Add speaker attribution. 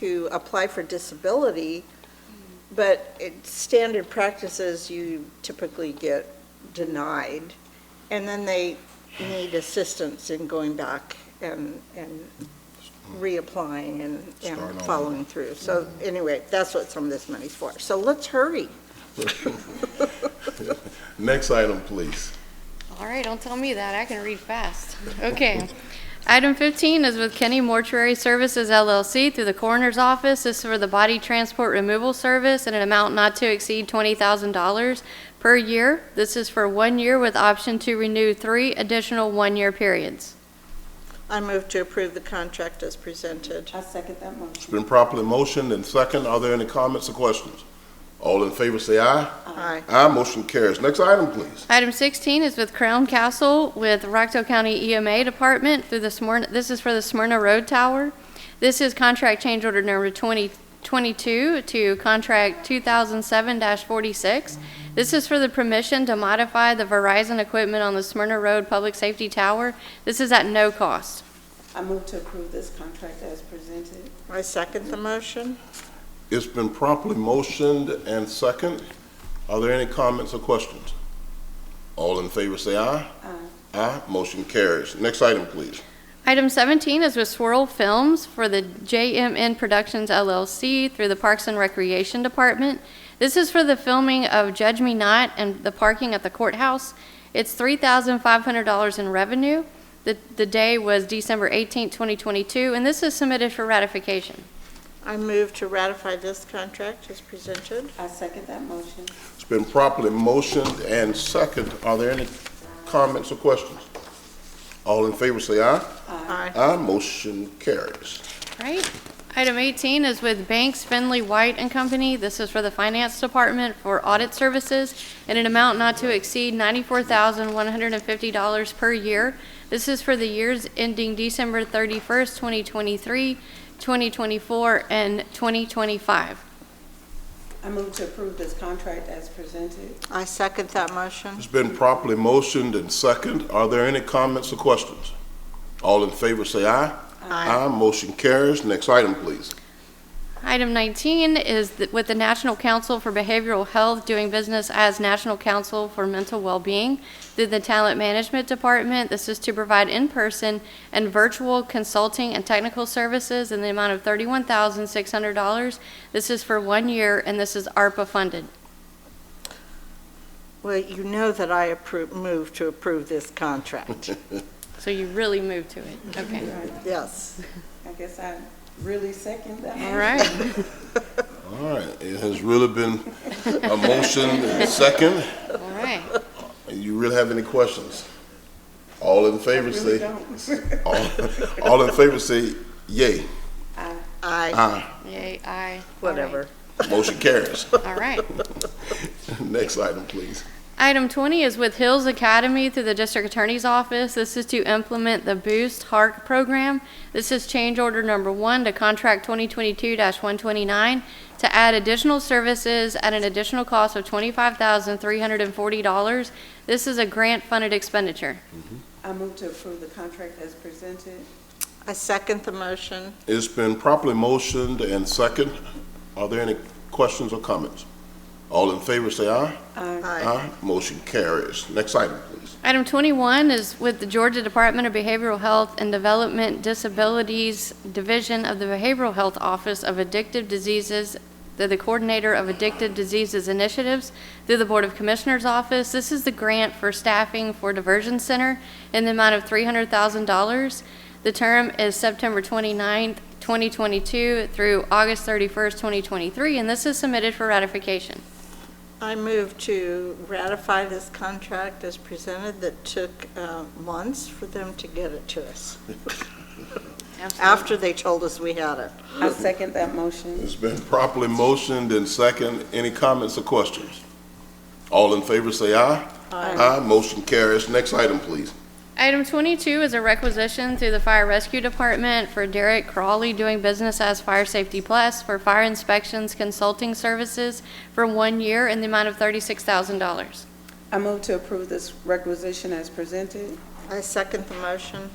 Speaker 1: to apply for disability, but it, standard practices, you typically get denied. And then they need assistance in going back and, and reapplying and,
Speaker 2: Start
Speaker 1: and
Speaker 2: over.
Speaker 1: following through. So anyway, that's what some of this money's for. So let's hurry.
Speaker 2: Next item, please.
Speaker 3: All right, don't tell me that. I can read fast. Okay. Item 15 is with Kenny Mortuary Services LLC through the Coroner's Office. This is for the body transport removal service in an amount not to exceed $20,000 per year. This is for one year with option to renew three additional one-year periods.
Speaker 1: I move to approve the contract as presented.
Speaker 4: I second that motion.
Speaker 2: It's been properly motioned and second. Are there any comments or questions? All in favor, say aye.
Speaker 1: Aye.
Speaker 2: Aye, motion carries. Next item, please.
Speaker 3: Item 16 is with Crown Castle with Rockdale County EMA Department through the Smyrna, this is for the Smyrna Road Tower. This is contract change order number 2022 to contract 2007-46. This is for the permission to modify the Verizon equipment on the Smyrna Road Public Safety Tower. This is at no cost.
Speaker 4: I move to approve this contract as presented.
Speaker 1: I second the motion.
Speaker 2: It's been properly motioned and second. Are there any comments or questions? All in favor, say aye.
Speaker 4: Aye.
Speaker 2: Aye, motion carries. Next item, please.
Speaker 3: Item 17 is with Swirl Films for the JMN Productions LLC through the Parks and Recreation Department. This is for the filming of Judge Me Not and the parking at the courthouse. It's $3,500 in revenue. The the day was December 18, 2022, and this is submitted for ratification.
Speaker 1: I move to ratify this contract as presented.
Speaker 4: I second that motion.
Speaker 2: It's been properly motioned and second. Are there any comments or questions? All in favor, say aye.
Speaker 1: Aye.
Speaker 2: Aye, motion carries.
Speaker 3: Right. Item 18 is with Banks Finley White and Company. This is for the Finance Department for audit services in an amount not to exceed $94,150 per year. This is for the years ending December 31st, 2023, 2024, and 2025.
Speaker 4: I move to approve this contract as presented.
Speaker 1: I second that motion.
Speaker 2: It's been properly motioned and second. Are there any comments or questions? All in favor, say aye.
Speaker 1: Aye.
Speaker 2: motion carries. Next item, please.
Speaker 3: Item 19 is th- with the National Council for Behavioral Health doing business as National Council for Mental Wellbeing through the Talent Management Department. This is to provide in-person and virtual consulting and technical services in the amount of $31,600. This is for one year, and this is ARPA-funded.
Speaker 1: Well, you know that I approve, move to approve this contract.
Speaker 3: So you really moved to it. Okay.
Speaker 1: Yes.
Speaker 4: I guess I really second that.
Speaker 3: All right.
Speaker 2: All right, it has really been a motion and second.
Speaker 3: All right.
Speaker 2: You really have any questions? All in
Speaker 4: I
Speaker 2: favor,
Speaker 4: really
Speaker 2: say,
Speaker 4: don't.
Speaker 2: all all in favor, say yay.
Speaker 4: Aye.
Speaker 1: Aye,
Speaker 2: Aye,
Speaker 3: Yay, aye. All right.
Speaker 1: whatever.
Speaker 2: motion carries.
Speaker 3: All right.
Speaker 2: Next item, please.
Speaker 3: Item 20 is with Hills Academy through the District Attorney's Office. This is to implement the Boost Hark program. This is change order number one to contract 2022-129 to add additional services at an additional cost of $25,340. This is a grant-funded expenditure.
Speaker 4: I move to approve the contract as presented.
Speaker 1: I second the motion.
Speaker 2: It's been properly motioned and second. Are there any questions or comments? All in favor, say aye.
Speaker 4: Aye.
Speaker 1: Aye.
Speaker 2: Motion carries. Next item, please.
Speaker 3: Item 21 is with the Georgia Department of Behavioral Health and Development Disabilities Division of the Behavioral Health Office of Addictive Diseases, they're the Coordinator of Addictive Diseases Initiatives through the Board of Commissioners Office. This is the grant for staffing for Diversion Center in the amount of $300,000. The term is September 29th, 2022 through August 31st, 2023, and this is submitted for ratification.
Speaker 1: I move to ratify this contract as presented that took uh, months for them to get it to us, after they told us we had it.
Speaker 4: I second that motion.
Speaker 2: It's been properly motioned and second. Any comments or questions? All in favor, say aye. Aye. Motion carries. Next item, please.
Speaker 3: Item 22 is a requisition through the Fire Rescue Department for Derek Crawley doing business as Fire Safety Plus for fire inspections consulting services for one year in the amount of $36,000.
Speaker 4: I move to approve this requisition as presented.
Speaker 1: I second the motion.